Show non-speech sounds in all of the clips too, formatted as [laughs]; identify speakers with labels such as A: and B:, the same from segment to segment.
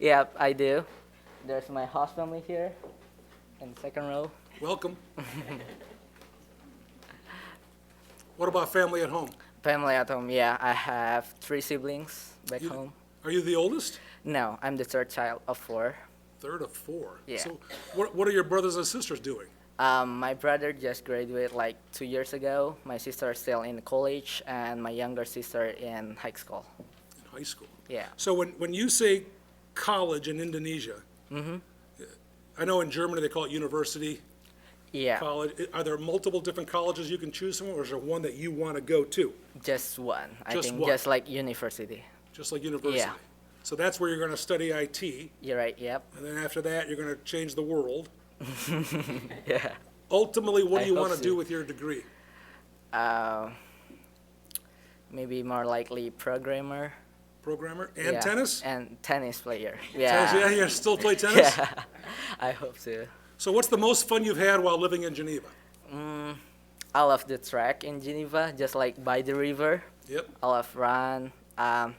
A: Yep, I do. There's my host family here in the second row.
B: Welcome. What about family at home?
A: Family at home, yeah. I have three siblings back
B: You-
A: home.
B: Are you the oldest?
A: No, I'm the third child of four.
B: Third of four?
A: Yeah.
B: So what, what are your brothers and sisters doing?
A: Um, my brother just graduated like two years ago. My sister is still in college, and my younger sister in high school.
B: in high school.
A: Yeah.
B: So when, when you say college in Indonesia,
A: Mm-hmm.
B: I know in Germany they call it university,
A: Yeah,
B: college. I- Are there multiple different colleges you can choose from, or is there one that you want to go to,
A: just one. I
B: Just
A: think
B: one.
A: just like university.
B: just like university?
A: Yeah.
B: So that's where you're going to study IT, and
A: You're right. Yep.
B: then after that, you're going to change the world.
A: [laughs] Yeah.
B: Ultimately, what
A: I
B: do you
A: hope
B: want to
A: so.
B: do with your degree?
A: Maybe more likely programmer.
B: Programmer and
A: yeah,
B: tennis?
A: And tennis player.
B: Tennis,
A: Yeah.
B: yeah, you still
A: [laughs]
B: play tennis?
A: yeah. I hope so.
B: So what's the most fun you've had while living in Geneva?
A: I love the track in Geneva, just like by the river.
B: Yep.
A: I love run. Um,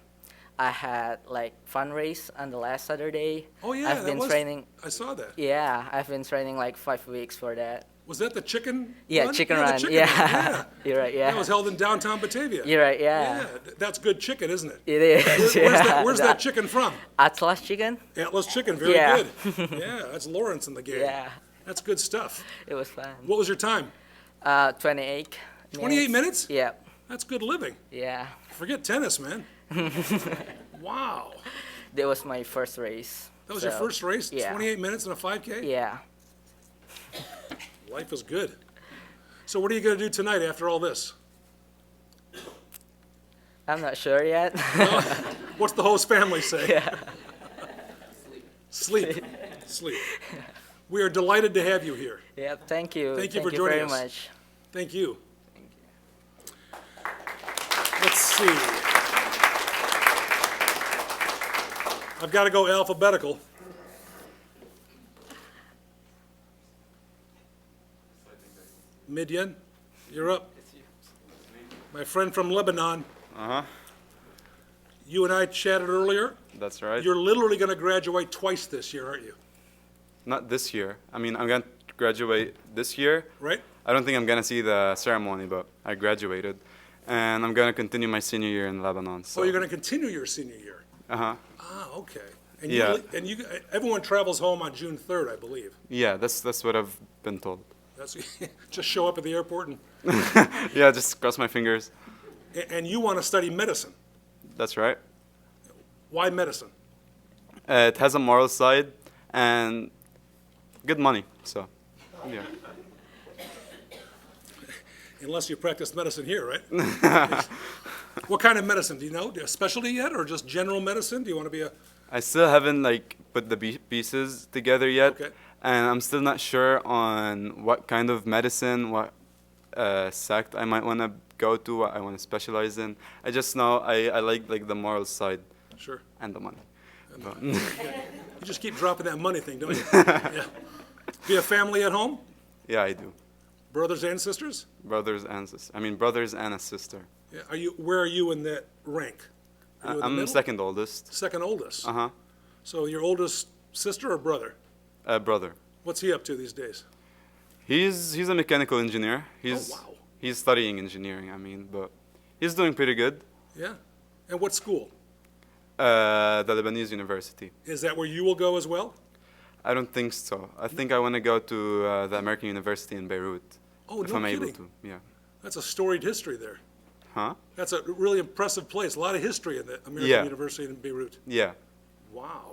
A: I had like fun race on the last Saturday.
B: Oh, yeah,
A: I've
B: that
A: been
B: was-
A: training.
B: I saw that.
A: Yeah, I've been training like five weeks for that.
B: Was that the chicken?
A: Yeah,
B: run?
A: chicken
B: yeah, the
A: run.
B: chicken
A: yeah.
B: yeah.
A: [laughs] you're right. Yeah,
B: That was held in downtown Batavia.
A: you're right.
B: Yeah,
A: Yeah,
B: th- that's good chicken, isn't
A: [laughs]
B: it?
A: it is.
B: Where's,
A: yeah.
B: that, where's
A: The
B: that chicken from?
A: Atlas chicken?
B: Atlas Chicken, very
A: Yeah. [laughs]
B: good. Yeah, that's Lawrence in the game.
A: Yeah,
B: That's good stuff.
A: it was fun.
B: What was your time?
A: Uh, 28.
B: 28 minutes?
A: Yeah,
B: That's good living.
A: yeah.
B: Forget
A: [laughs]
B: tennis, man. wow.
A: That was my first race.
B: That was your
A: so,
B: first race?
A: yeah.
B: 28 minutes in a 5K?
A: Yeah.
B: Life is good. So, what are you going to do tonight after all this?
A: I'm not sure yet. [laughs]
B: What's the host family say? Sleep. Sleep. We are delighted to have you here.
A: yeah, thank you.
B: Thank you for
A: very
B: joining us.
A: much.
B: Thank you. Let's see. I've got to go alphabetical. Midian, you're up. My friend from Lebanon.
C: Uh-huh,
B: You and I chatted earlier.
C: that's right.
B: You're literally going to graduate twice this year, aren't you?
C: Not this year. I mean, I'm gonna graduate this year.
B: Right?
C: I don't think I'm gonna see the ceremony, but I graduated, and I'm gonna continue my senior year in Lebanon. So
B: So Oh, you're going to continue your senior year.
C: Uh-huh.
B: Ah, okay. And you,
C: Yeah.
B: and you, everyone travels home on June 3rd, I believe.
C: Yeah, that's that's what I've been told. [laughs]
B: That's, [laughs] just show up at the airport and,
C: Yeah, just cross my fingers.
B: and you want to study medicine.
C: That's right.
B: Why medicine?
C: Uh, it has a moral side and good money. So, yeah.
B: Unless you practice medicine here, right?
C: [laughs]
B: what kind of medicine? Do you know? A specialty yet or just general medicine? Do you want to be a,
C: I still haven't like put the pie- pieces together yet,
B: Okay.
C: and I'm still not sure on what kind of medicine, what uh, sect I might want to go to, what I want to specialize in. I just know I, I like like the moral side
B: sure.
C: and the money. But-
B: You just keep dropping that money thing,
C: [laughs]
B: don't you? yeah. Be a family at home?
C: yeah, I do.
B: Brothers and sisters?
C: Brothers and sis- I mean brothers and a sister.
B: Yeah. Are you, where are you in that rank? Are you in the
C: I'm
B: middle?
C: second oldest.
B: Second oldest.
C: Uh huh.
B: So your oldest sister or brother?
C: Uh, brother.
B: What's he up to these days?
C: He's he's a mechanical engineer. He's
B: Oh, wow.
C: he's studying engineering. I mean, but he's doing pretty good.
B: Yeah. And what school?
C: Uh, the Lebanese University.
B: Is that where you will go as well?
C: I don't think so. I think I want to go to uh, the American University in Beirut.
B: Oh,
C: if
B: no
C: I'm able
B: kidding.
C: to. Yeah.
B: That's a storied history there.
C: Huh?
B: That's a really impressive place. A lot of history in the American
C: Yeah.
B: University in Beirut.
C: Yeah.
B: Wow.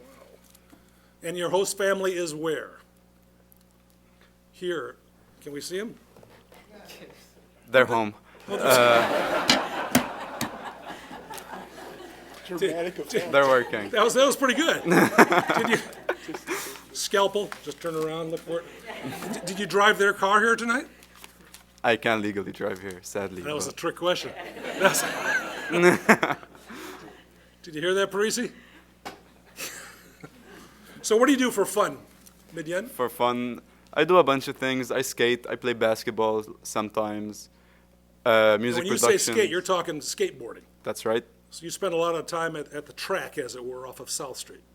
B: Wow. And your host family is where? Here. Can we see him?
C: They're home. Uh,
B: [laughs]
C: They're working.
B: That was, that was pretty good. Did you, scalpel, just turn around, look for it. D- Did you drive their car here tonight?
C: I can't legally drive here, sadly.
B: That was a
C: but-
B: trick question. That's- Did you hear that, Parisi? So what do you do for fun, Midyan?
C: for fun. I do a bunch of things. I skate. I play basketball sometimes. Uh, music
B: When you say
C: production.
B: skate, you're talking skateboarding.
C: That's right.
B: So you spend a lot of time at, at the track, as it were, off of South Street.